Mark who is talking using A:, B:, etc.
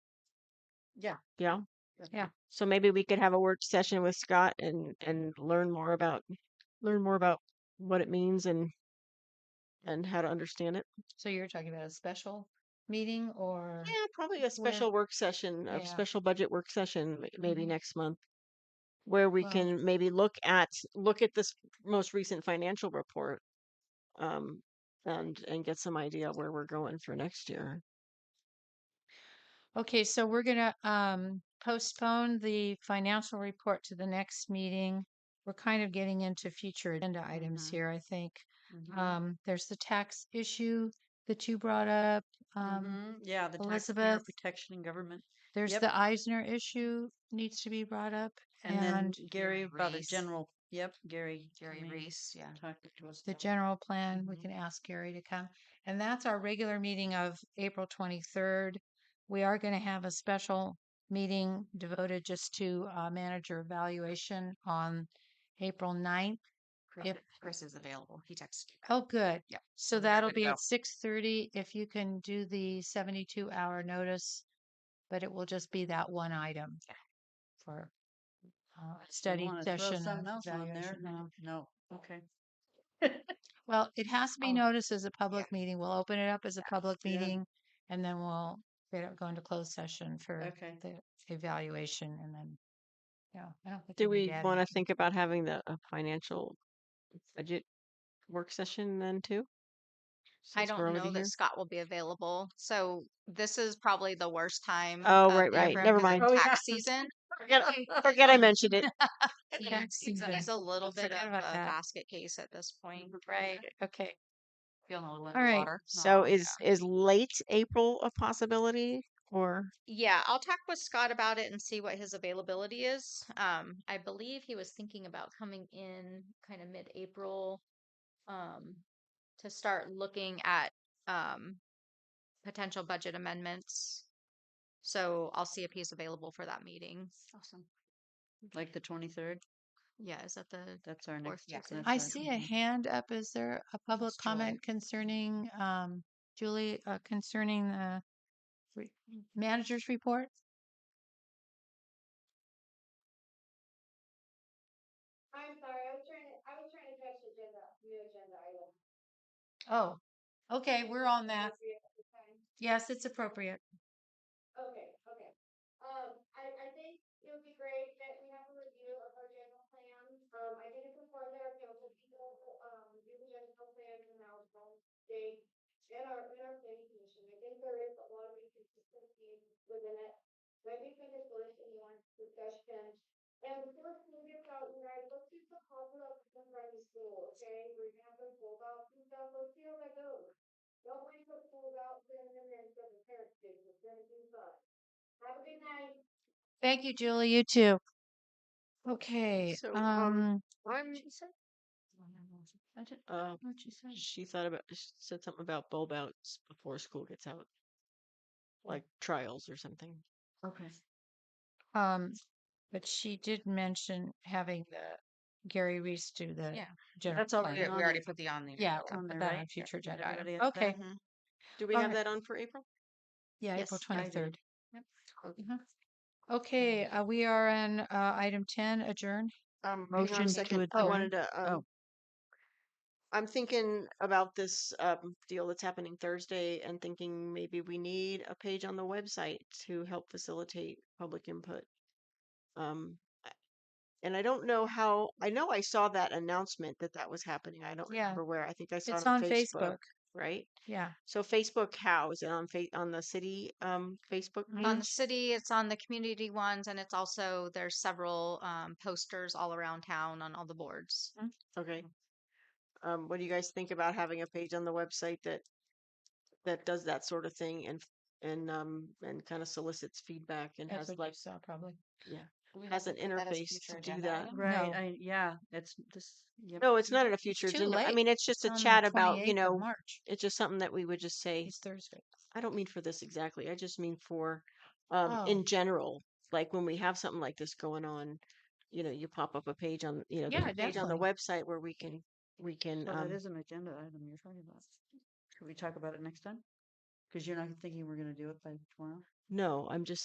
A: Yeah.
B: you know?
A: That'd
B: Yeah.
A: be
B: So maybe we could have a work session with Scott and and learn more about learn more about what it means and and how to understand it.
A: So you're talking about a special meeting or
B: Yeah, probably a
A: where?
B: special work session, a
A: Yeah.
B: special budget work session m- maybe
A: hmm
B: next month where we
A: Well,
B: can maybe look at look at this most recent financial report um and and get some idea where we're going for next year.
A: okay. So we're gonna um, postpone the financial report to the next meeting. We're kind of getting into future agenda items
C: Mm-hmm.
B: Mhm.
A: here, I think.
B: Mhm.
A: Um, there's the tax issue that you brought up, um,
C: Mm-hmm. Yeah, the taxpayer
A: Elizabeth.
C: protection and government.
A: There's
C: Yep.
A: the Eisner issue needs to be brought up,
C: And then
A: and
C: Gary about a
D: Reese.
C: general, yep, Gary.
D: Jerry
C: coming,
D: Reese, yeah.
C: Talking to us
A: the
C: about.
A: general plan. We
C: Mhm.
A: can ask Gary to come. And that's our regular meeting of April 23rd. We are going to have a special meeting devoted just to uh, manager evaluation on April 9th.
D: Chris,
A: If,
D: Chris is available. He texted. me.
A: oh, good.
D: Yep.
A: So
D: We're
A: that'll
D: good to
A: be
D: go.
A: at 6:30 if you can do the 72 hour notice, but it will just be that one item
D: Yeah.
A: for uh, a
C: You
A: study
C: want to throw
A: session
C: something
A: of
C: else on there?
A: evaluation.
C: No, no, okay.
A: Well, it has to be
D: Oh,
A: noticed as a
D: yeah.
A: public meeting. We'll open it up as a public
C: Yeah,
A: meeting and then we'll get it, go into closed session for
C: okay.
A: the evaluation and then, yeah, I don't think
B: Do
A: we need
B: we
A: to add
B: want to
A: anything.
B: think about having the a financial budget work session then too
D: I
B: since we're
D: don't
B: already
D: know that
B: here?
D: Scott will be available. So this is probably the worst time
B: Oh,
D: of
B: right,
D: the year
B: right.
D: for him
B: Never
D: because
B: mind.
D: of
C: Oh, yeah.
D: tax season.
B: Forget forget I mentioned it.
A: Yeah,
D: He's,
A: seems
D: he's a
A: I
D: little bit
A: forgot
D: of
A: about
D: a
A: that. Mm-hmm.
D: basket case at this point.
A: Right. Okay.
D: Feeling a little
A: All
D: under
A: right.
D: water.
B: So is is late April a possibility or
D: Yeah, I'll talk with Scott about it and see what his availability is. Um, I believe he was thinking about coming in kind of mid-April, um, to start looking at um potential budget amendments. So I'll see if he's available for that meeting.
C: Awesome. Like the twenty-third,
D: Yeah, is that the
C: that's our
D: fourth
C: next.
D: Yeah. Tuesday?
C: that's
A: I
C: our-
A: see a
C: mhm.
A: hand up. Is there a public
D: It's Julie.
A: comment concerning, um, Julie, uh, concerning the re- manager's report?
E: I'm sorry, I was trying to, I was trying to catch the agenda, new agenda item.
A: Oh, okay. We're on that.
E: Appropriate at the time.
A: Yes, it's appropriate.
E: Okay, okay. Um, I, I think it would be great that we have a review of our general plan. Um, I did it before there, if you'll just go, um, do the general plan and now they, in our, in our planning commission, I think there is a lot of inconsistency within it. But I think we just listen to one discussion. And before we get out, you guys, let's do the positive of the primary school, okay? We're gonna have those holdouts and stuff, let's see how that goes. Don't wait for school's out, send them in for the parents' day, it's gonna be fun. Have a good night.
A: Thank you, Julie. You too. Okay,
C: So, um,
A: um,
C: I'm,
A: I did-
B: uh
A: what she said.
B: she thought about she said something about bulb outs before school gets out, like trials or something.
C: okay.
A: Um, but she did mention having the Gary Reese do the
D: Yeah.
A: general
C: That's all
A: plan.
C: right.
D: We
C: on
D: we already
C: there.
D: put the on there.
A: Yeah,
C: It's
A: we'll
C: on
A: put
C: there,
A: that on uh,
C: right? Yeah,
A: future
C: did
A: agenda item.
C: everybody have that?
A: Okay,
B: mm-hmm.
C: Mhm.
B: Do we
A: all
B: have
A: right.
B: that on for April?
A: Yeah, April
D: Yes,
C: I did.
A: twenty-third.
B: Mm-hmm.
C: Yep. Mm-hmm.
A: Okay, uh, we are on, uh, item ten, adjourn.
B: Um hang on a
A: Motion to
B: second. I
A: adjourn.
B: wanted to um
A: Oh,
B: I'm thinking about this um, deal that's happening Thursday and thinking maybe we need a page on the website to help facilitate public input. Um, I- and I don't know how, I know I saw that announcement that that was happening. I don't
A: yeah,
B: remember where. I think I saw
A: it's
B: it on
A: on
B: Facebook,
A: Facebook.
B: right?
A: Yeah.
B: So Facebook, how is it on fa- on the city um, Facebook
D: On the
B: page?
D: city, it's on the community ones, and it's also there's several um, posters all around town on all the boards.
B: Okay.
A: Mm-hmm.
B: Um, what do you guys think about having a page on the website that that does that sort of thing and and um and kind of solicits feedback and
A: That's
B: has
A: what you
B: like
A: saw probably.
B: yeah
C: We
B: has
C: haven't
B: an
C: put that as
B: interface to
C: future
B: do
C: agenda
B: that
C: item? Right,
A: No.
C: I, yeah, it's this, yep.
B: no it's not in a future
A: It's too
B: agenda i
A: late.
B: mean it's just
A: It's
B: a
A: on the
B: chat about you
A: twenty-eighth of
B: know
A: March.
B: it's just something that we would just say
A: It's Thursday.
B: i don't mean for this exactly i just mean for um
A: Oh,
B: in general like when we have something like this going on you know you pop up a page on you know there's
A: yeah,
B: a page on the
A: definitely.
B: website where we can we can
C: Well, that
B: um
C: is an agenda item you're talking about. Should we talk about it next time? Because you're not thinking we're gonna do it by tomorrow?
B: no i'm just